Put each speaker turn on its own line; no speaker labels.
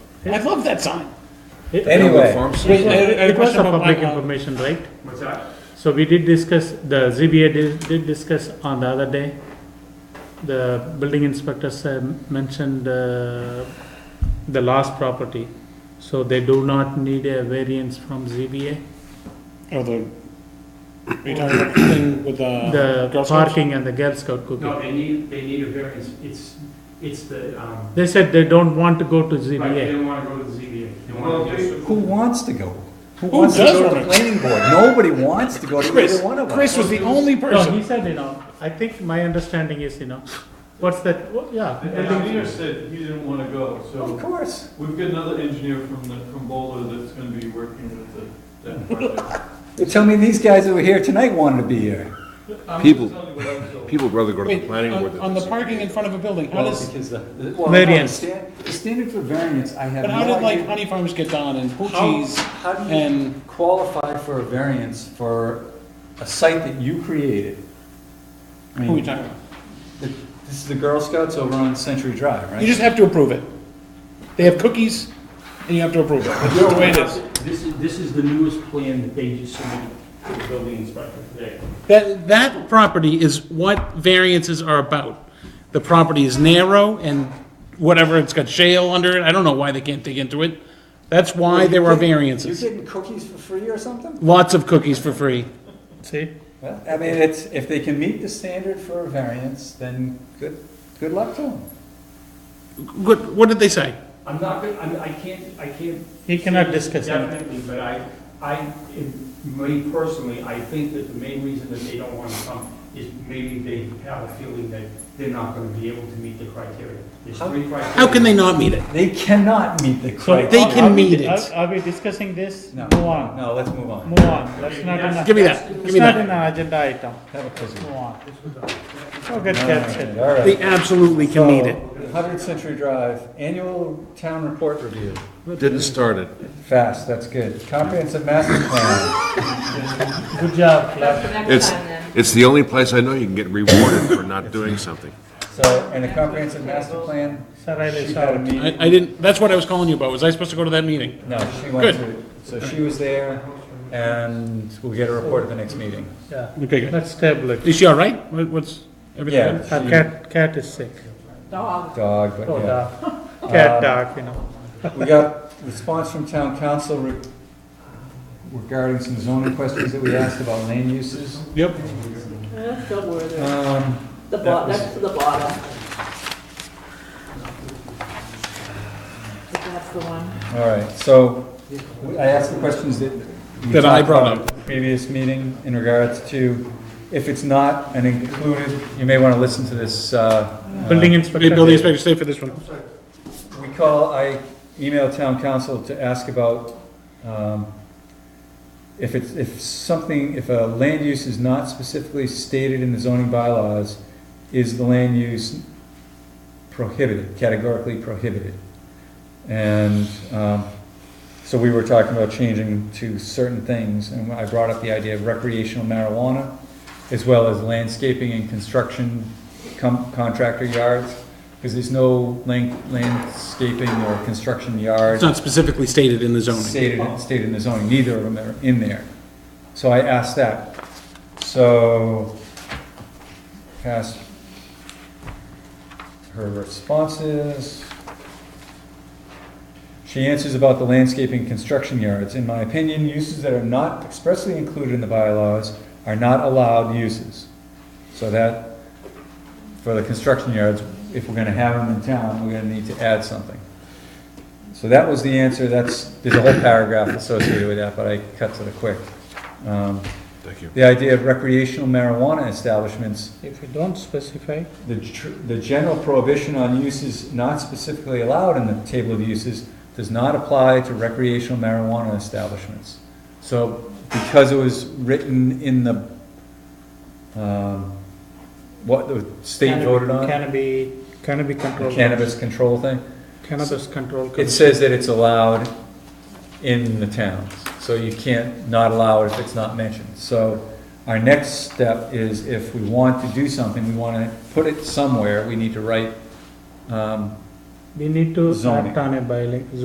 I love that sign.
Anyway,
Wait, I had a- I had a
It was
question
a
about
public
my, uh,
information, right?
What's that?
So we did discuss, the ZBA did, did discuss on the other day. The building inspectors uh, mentioned uh, the last property. So they do not need a variance from ZBA.
Oh, the, are you talking about the thing with the
The
Girl Scouts?
parking and the Girl Scout cookie.
No, they need, they need a variance, it's, it's the, um,
They said they don't want to go to
right, they
ZBA.
don't wanna go to the ZBA. They
Well,
wanna just-
who wants to go? Who
Who
wants to
does
go to
wanna-
the planning board? Nobody wants to go to
Chris,
either one of
Chris
us.
was the only
No,
person.
he said, you know, I think my understanding is, you know, what's that, What- yeah.
And
I think-
engineer said he didn't want to go,
Of
so
course.
we've got another engineer from the, from Boulder that's going to be working with the, that project.
You Tell me these guys that were here tonight wanted to be here.
I'm
People-
just telling you what I was told.
People would rather go to
Wait,
the planning board
on,
than.
on the parking in front of a building, how does,
because uh, the.
Variance.
The standard for variance, I have
but
no
how did like
idea.
Honey Farms get done and
How-
Poochie's?
How do you
and-
qualify for a variance for a site that you created? I
Who are we
mean,
talking about?
the- this is the Girl Scouts over on Century Drive, right?
You just have to approve it. They have cookies, and you have to approve it. That's the way it is.
This is, this is the newest plan that they just submitted to the building inspector today.
That, that property is what variances are about. The property is narrow and whatever, it's got shale under it, I don't know why they can't dig into it. That's why there are variances.
You're getting cookies for free or something?
Lots of cookies for free.
See,
Well, I mean, it's, if they can meet the standard for a variance, then good, good luck to them.
What, what did they say?
I'm not gonna, I'm, I can't, I can't.
He cannot
say
discuss anything.
Definitely, but I, I, it- me personally, I think that the main reason that they don't wanna come is maybe they have a feeling that they're not gonna be able to meet the criteria. There's
How-
three criteria.
How can they not meet it?
They cannot meet the
So
criteria.
They
are-
can
are we-
meet it.
are- Are we discussing this?
No,
Move on.
No, let's move on.
Move on, that's not
That's-
an,
Give me that,
that's-
give
it's
me
not
that.
an agenda item,
Have a cookie.
move on. Go get
All
captured.
right, all right.
They absolutely can meet it.
Hundred Century Drive, annual town report review.
Didn't start it.
Fast, that's good. Comprehensive master plan.
Good job,
That's
Clark.
the next
It's,
time then.
it's the only place I know you can get rewarded for not doing something.
So, and the comprehensive master plan,
Sarai
she
is
had a
out.
meeting.
I, I didn't, that's what I was calling you about, was I supposed to go to that meeting?
No, she went to, so she was there, and we'll get a report at the next meeting.
Yeah,
Okay, good.
let's table it.
Is she all right? What- What's, everything
Yeah.
good?
Our cat, cat is sick,
Dog.
Dog, but
oh,
yeah.
dog, cat,
Um,
dog, you know.
We got response from town council re- regarding some zoning questions that we asked about land uses.
Yep.
That's the word.
Um,
The
that
bottom,
was-
that's the bottom. That's the one.
all right, so we- I asked the questions that. we
That I
talked
brought
about at the Previous meeting in regards to, if it's not an included, you may want to listen to this, uh.
Building
uh,
Hey, building
inspector,
inspector, stay for this one.
We call, I emailed town council to ask about, um, if it's, if something, if a land use is not specifically stated in the zoning bylaws, is the land use prohibited, categorically prohibited? And, um, so we were talking about changing to certain things, and I brought up the idea of recreational marijuana, as well as landscaping and construction com- contractor yards, because there's no lan- landscaping or construction yard
It's not specifically stated in the zoning.
stated, stated in the zoning, neither of them are in there. So I asked that. So, asked her responses. She answers about the landscaping construction yards. In my opinion, uses that are not expressly included in the bylaws are not allowed uses. So that, for the construction yards, if we're gonna have them in town, we're gonna need to add something. So that was the answer, that's, there's a whole paragraph associated with that, but I cut to the quick. Um,
Thank you.
The idea of recreational marijuana establishments,
if you don't specify,
the, tr- the general prohibition on uses not specifically allowed in the table of uses does not apply to recreational marijuana establishments. So, because it was written in the, um, what the state
cannab-
voted on,
Cannabis, cannabis
the
control.
cannabis control thing,
Cannabis control.
It
commission.
says that it's allowed in the towns, so you can't not allow it if it's not mentioned. So our next step is if we want to do something, we want to put it somewhere, we need to write, um,
We need to
Zoning.
act on a bylaw,